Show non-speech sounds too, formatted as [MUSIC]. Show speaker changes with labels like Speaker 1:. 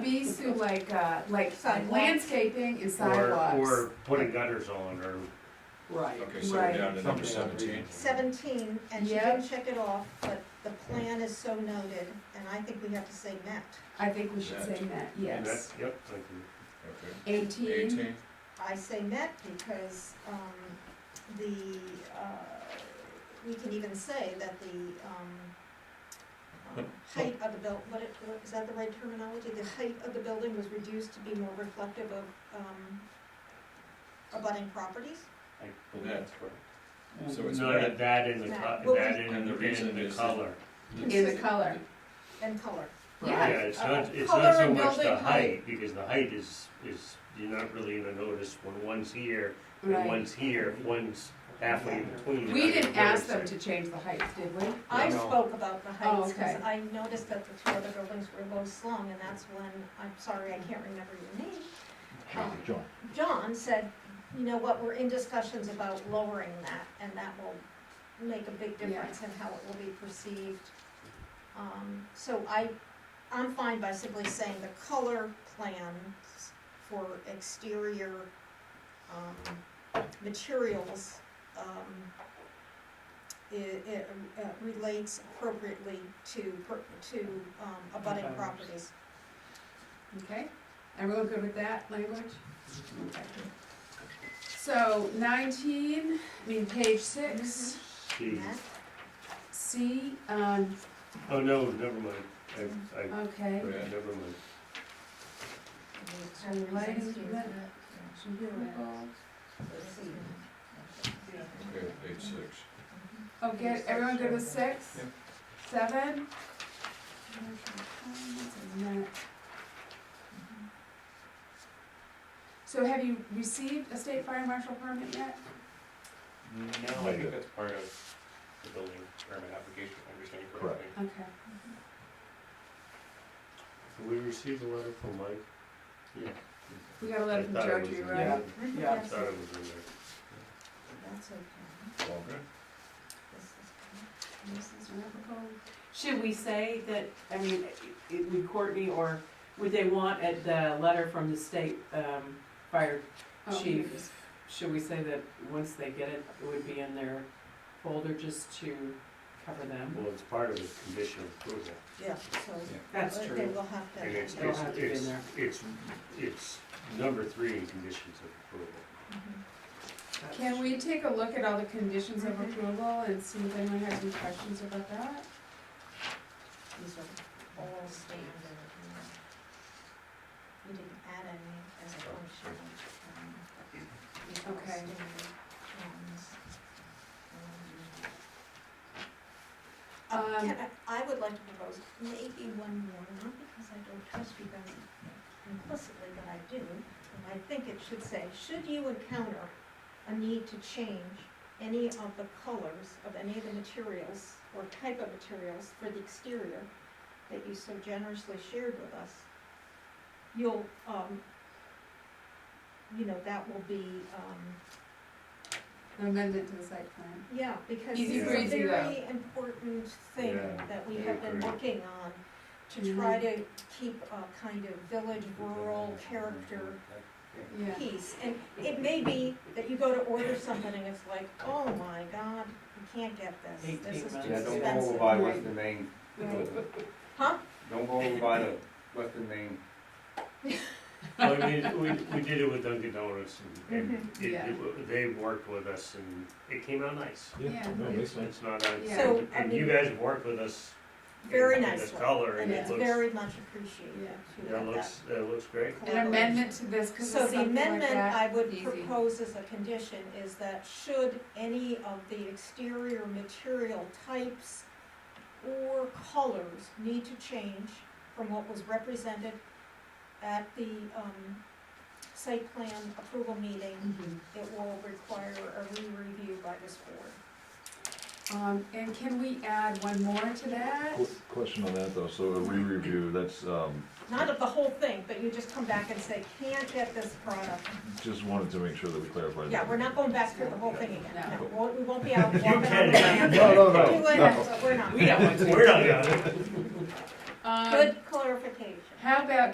Speaker 1: these two, like, uh, like
Speaker 2: Sidewalk.
Speaker 1: landscaping is
Speaker 3: Or,
Speaker 1: sidewalks.
Speaker 3: or putting gutters on, or,
Speaker 4: Right.
Speaker 5: Okay, so we're down to number
Speaker 4: Something like that.
Speaker 5: seventeen.
Speaker 2: Seventeen, and she
Speaker 1: Yep.
Speaker 2: didn't check it off, but the plan is so noted, and I think we have to say met.
Speaker 1: I think we should say that,
Speaker 3: and that,
Speaker 1: yes.
Speaker 3: yep, thank you.
Speaker 5: Okay.
Speaker 1: Eighteen,
Speaker 5: Eighteen,
Speaker 2: I say met because, um, the, uh, we can even say that the, um, um, height of the buil, what it, what, is that the right terminology? The height of the building was reduced to be more reflective of, um, abutting properties?
Speaker 3: I believe that's correct.
Speaker 5: So it's
Speaker 3: No,
Speaker 5: red.
Speaker 3: that in the,
Speaker 2: Red.
Speaker 3: co-
Speaker 2: Well,
Speaker 3: that
Speaker 2: we-
Speaker 3: in,
Speaker 5: And the reason
Speaker 3: in the
Speaker 5: is that-
Speaker 3: color.
Speaker 1: in the color,
Speaker 2: And color.
Speaker 3: Yeah,
Speaker 1: yeah.
Speaker 3: it's
Speaker 2: uh,
Speaker 3: not, it's
Speaker 1: color
Speaker 3: not so
Speaker 1: and
Speaker 3: much the
Speaker 1: building height.
Speaker 3: height, because the height is, is, you're not really gonna notice when one's here and
Speaker 1: Right.
Speaker 3: one's here, if one's halfway in between. you're
Speaker 1: We
Speaker 3: not
Speaker 1: didn't
Speaker 3: gonna
Speaker 1: ask them
Speaker 3: notice
Speaker 1: to
Speaker 3: it.
Speaker 1: change the heights, did we?
Speaker 2: I
Speaker 3: No.
Speaker 2: spoke about the
Speaker 1: Oh,
Speaker 2: heights,
Speaker 1: okay.
Speaker 2: because I noticed that the two other buildings were low slung, and that's when, I'm sorry, I can't remember your name. um,
Speaker 4: John.
Speaker 2: John said, you know what, we're in discussions about lowering that, and that will make a big difference in how it will be perceived. Um, so I, I'm fine by simply saying the color plans for exterior, um, materials, um, i it, uh, relates appropriately to, per- to, um, abutting
Speaker 4: Abutters.
Speaker 2: properties.
Speaker 1: Okay, everyone good with that language? Okay. So nineteen, I mean, page six,
Speaker 3: Mm-hmm. See,
Speaker 2: Matt?
Speaker 1: C, um,
Speaker 3: oh, no, never mind, I, I,
Speaker 1: okay.
Speaker 5: Yeah.
Speaker 3: never mind.
Speaker 1: And lighting,
Speaker 5: okay, eight, six.
Speaker 1: Okay, everyone good with six?
Speaker 5: Yep.
Speaker 1: Seven? So have you received a state fire marshal permit yet?
Speaker 6: No, I think that's part of the building permit application, if I understand you correctly.
Speaker 1: Okay.
Speaker 3: Did We received a letter from Mike. Yeah.
Speaker 1: We got a
Speaker 3: I
Speaker 1: letter from
Speaker 3: thought it
Speaker 1: Joe
Speaker 3: was
Speaker 1: G.
Speaker 3: in
Speaker 1: Rowe.
Speaker 3: there.
Speaker 4: Yeah.
Speaker 3: I Thought it was in there.
Speaker 2: That's okay.
Speaker 5: All good?
Speaker 7: Should we say that, I mean, it, would Courtney, or would they want at the letter from the state, um, fire,
Speaker 1: Oh, here
Speaker 7: Chief.
Speaker 1: it is.
Speaker 7: should we say that once they get it, it would be in their folder just to cover them?
Speaker 3: Well, it's part of the condition of approval.
Speaker 2: Yeah, so.
Speaker 7: That's
Speaker 2: they- They
Speaker 7: true.
Speaker 2: will have to.
Speaker 3: And it's,
Speaker 7: It'll
Speaker 3: it's,
Speaker 7: have to be in
Speaker 3: it's,
Speaker 7: there.
Speaker 3: it's, it's number three in conditions of approval.
Speaker 2: Mhm.
Speaker 7: That's-
Speaker 1: Can we take a look at all the conditions of
Speaker 2: Mhm.
Speaker 1: approval and see if anyone has any questions about that?
Speaker 2: These are all standard. you know. We didn't add any as a
Speaker 7: Oh.
Speaker 2: function. um, these are all
Speaker 1: Okay.
Speaker 2: standard ones. Um, uh,
Speaker 1: Um,
Speaker 2: can I I would like to propose maybe one more, not because I don't trust you guys implicitly, but I do. And I think it should say, should you encounter a need to change any of the colors of any of the materials or type of materials for the exterior that you so generously shared with us, you'll, um, you know, that will be, um,
Speaker 1: Amendment to the site plan.
Speaker 2: yeah, because
Speaker 1: Easy
Speaker 2: it's a
Speaker 1: breezy, though.
Speaker 2: very important thing
Speaker 3: Yeah,
Speaker 2: that we
Speaker 3: I
Speaker 2: have been
Speaker 3: agree.
Speaker 2: working on to
Speaker 1: Mm-hmm.
Speaker 2: try to keep a kind of village rural character
Speaker 1: Yeah.
Speaker 2: piece, and it may be that you go to order something and it's like, oh my god, you can't get this, this is too
Speaker 7: Eighteen
Speaker 2: expensive.
Speaker 7: Yeah,
Speaker 8: Yeah, don't go over by Western Main,
Speaker 1: Right.
Speaker 2: Huh?
Speaker 8: don't go over by the Western Main,
Speaker 3: Well, I mean, we, we did it with Dunkin' Donuts and, and it,
Speaker 1: Yeah.
Speaker 3: it, wa- they worked with us and it came out nice.
Speaker 1: Yeah.
Speaker 4: No,
Speaker 3: It's,
Speaker 4: makes sense.
Speaker 3: it's not, a-
Speaker 1: Yeah.
Speaker 2: So, I
Speaker 3: and you
Speaker 2: mean-
Speaker 3: guys worked with us. in-
Speaker 2: Very
Speaker 3: in
Speaker 2: nicely,
Speaker 3: This color
Speaker 2: And
Speaker 3: and
Speaker 1: Yeah.
Speaker 3: it
Speaker 2: it's
Speaker 3: looks,
Speaker 2: very much appreciated
Speaker 1: Yeah.
Speaker 2: to
Speaker 3: yeah, it
Speaker 2: have that.
Speaker 3: looks, it looks great.
Speaker 1: An amendment to this, because
Speaker 2: So
Speaker 1: it's
Speaker 2: the
Speaker 1: something like
Speaker 2: amendment I
Speaker 1: that.
Speaker 2: would
Speaker 1: Easy.
Speaker 2: propose as a condition is that should any of the exterior material types or colors need to change from what was represented at the, um, site plan approval meeting,
Speaker 1: Mm-hmm.
Speaker 7: Mhm.
Speaker 2: it will require a re-review by this board.
Speaker 1: Um, and can we add one more to that?
Speaker 9: Qu- Question on that though, so a re-review, that's, um,
Speaker 2: Not of the whole thing, but you just come back and say, can't get this product.
Speaker 9: just wanted to make sure that we clarified.
Speaker 2: Yeah,
Speaker 9: that.
Speaker 2: we're not going back through the whole thing again.
Speaker 1: No.
Speaker 2: We won't- We won't be out walking on the
Speaker 3: can.
Speaker 2: land.
Speaker 3: [LAUGHS] No,
Speaker 9: no, no,
Speaker 2: Doing
Speaker 9: no.
Speaker 2: it, but we're not.
Speaker 7: We don't want to.
Speaker 3: We're not,
Speaker 1: Um,
Speaker 2: Good clarification.
Speaker 1: How about